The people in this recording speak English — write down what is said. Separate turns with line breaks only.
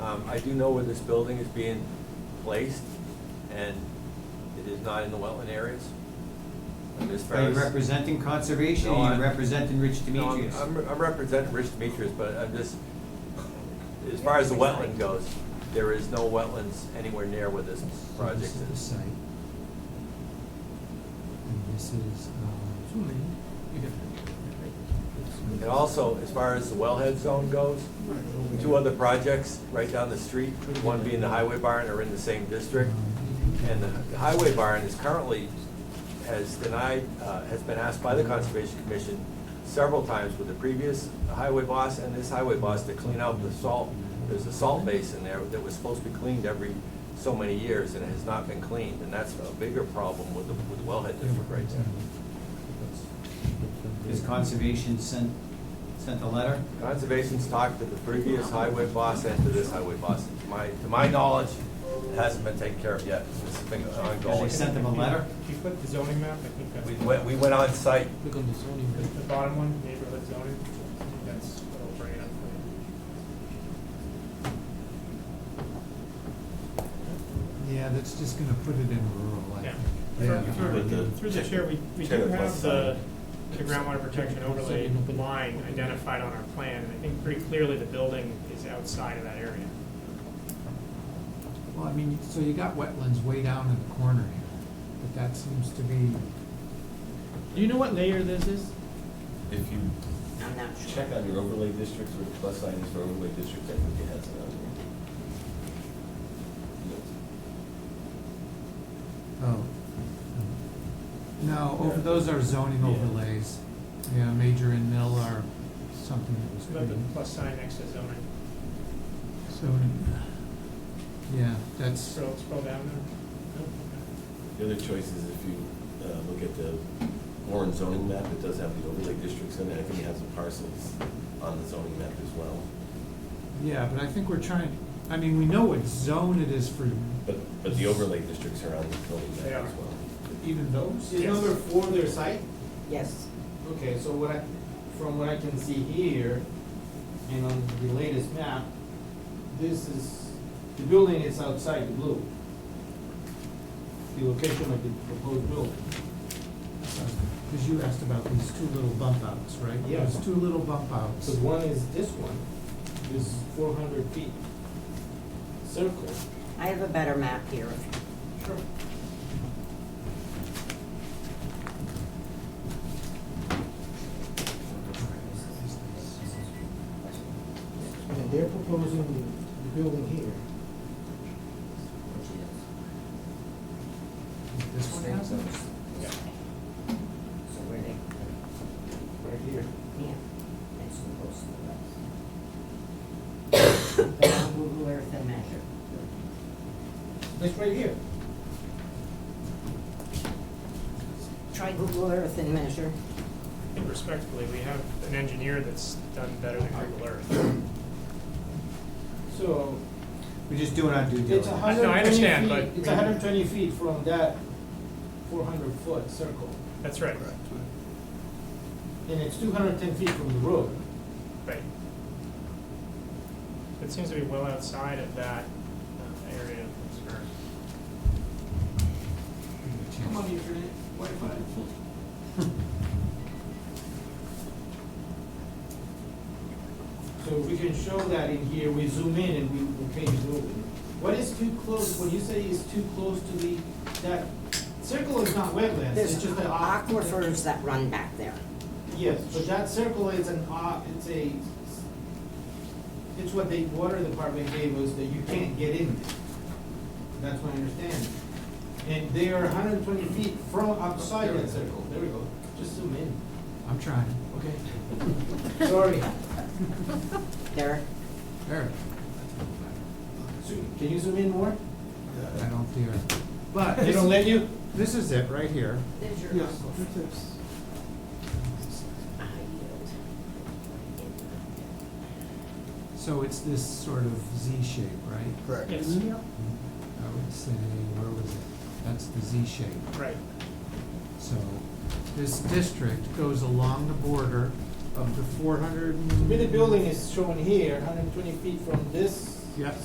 Um, I do know where this building is being placed, and it is not in the wetland areas. Ms.
Are you
Ferris?
representing conservation,
No,
or are
I-
you representing Rich
No, I'm-
Demetrius?
I'm, I'm representing Rich Demetrius, but I'm just, as far as the wetland goes, there is no wetlands anywhere near where this project
This is the
is.
site. And
uh,
this is, um,
Zoom in. You have
And also, as far as the wellhead zone goes, two other projects right down the street, one being the highway barn, are in the same
um,
district. And the highway barn is currently, has denied, uh, has been asked by the Conservation Commission several times with the previous highway boss and this highway boss to clean out the salt. There's a salt basin there that was supposed to be cleaned every so many years and it has not been cleaned. And that's a bigger problem with the, with the wellhead district right there.
Has conservation sent, sent a letter?
Conservation's talked to the previous highway boss and to this highway boss. To my, to my knowledge, it hasn't been taken care of yet. This has been
Has they
ongoing.
sent them a letter?
If you flip the zoning map, I think that's.
We went, we went on site
Click on the zoning.
The the bottom one, neighborhood zoning, that's what I'll bring it up for
Yeah, that's just gonna put it in rural, I
you. Yeah.
think.
Through-
With
Through
the-
through the chair, we, we do
Chair,
have
what's
the,
that?
the groundwater protection overlay line identified on our plan, and I think pretty clearly the building is outside of that area.
Well, I mean, so you got wetlands way down in the corner here, but that seems to be,
Do you know what layer this is?
If you
I'm not sure.
check on your overlay districts, where the plus sign is for overlay districts, I think it has it on there.
oh. No, over,
Yeah.
those are zoning
Yeah.
overlays. Yeah, Major and Mill are something that was
It's about the
pretty,
Mm-hmm.
plus sign next to zoning.
zoning. Yeah, that's,
Scroll, scroll down there. No?
The other choice is if you uh, look at the Warren zoning map, it does have the overlay districts in it, I think it has the parcels on the zoning map as well.
yeah, but I think we're trying, I mean, we know what zone it is for
But, but the overlay districts are on the zoning
They
map
are.
as well.
even those.
Is
Yes.
number four their site?
Yes,
Okay, so what I, from what I can see here, and on the latest map, this is, the building is outside the blue. The location of the proposed building.
Because you asked about these two little bump outs, right?
Yeah.
Those two little bump outs.
Because one is this one, this four hundred feet circle.
I have a better map here.
Sure. And they're proposing the building here.
This one has those?
Yeah.
So where they,
Right here.
yeah, that's the post of the west. Google Earth and measure.
That's right here.
Try Google Earth and measure.
I think respectfully, we have an engineer that's done better than Google Earth.
So
We're just doing our due
it's
diligence.
a
I
hundred and
understand,
twenty feet,
but
it's
we-
a hundred and twenty feet from that four hundred foot circle.
That's right,
And it's two hundred and ten feet from the road.
right. It seems to be well outside of that uh, area of concern.
Come on, internet, Wi-Fi. So we can show that in here, we zoom in and we, we change the over. What is too close, when you say is too close to the, that circle is not wetlands,
There's
it's just an. aqu-
aquifers that run back there.
Yes, but that circle is an, uh, it's a, it's what the water department gave us that you can't get in. That's my understanding. And they are hundred and twenty feet from outside that circle, there we go, just zoom in,
I'm trying.
okay? Sorry,
There,
There.
Zoom. can you zoom in more?
I don't dare. But
They don't let you?
this is it, right here.
there's your
Yes.
aquifer. I yield.
So it's this sort of Z shape, right?
Correct.
Yes,
I would say, where was it? That's the Z shape.
right.
So this district goes along the border of the four hundred
To me, the building is shown here, hundred and twenty feet from this
Yeah.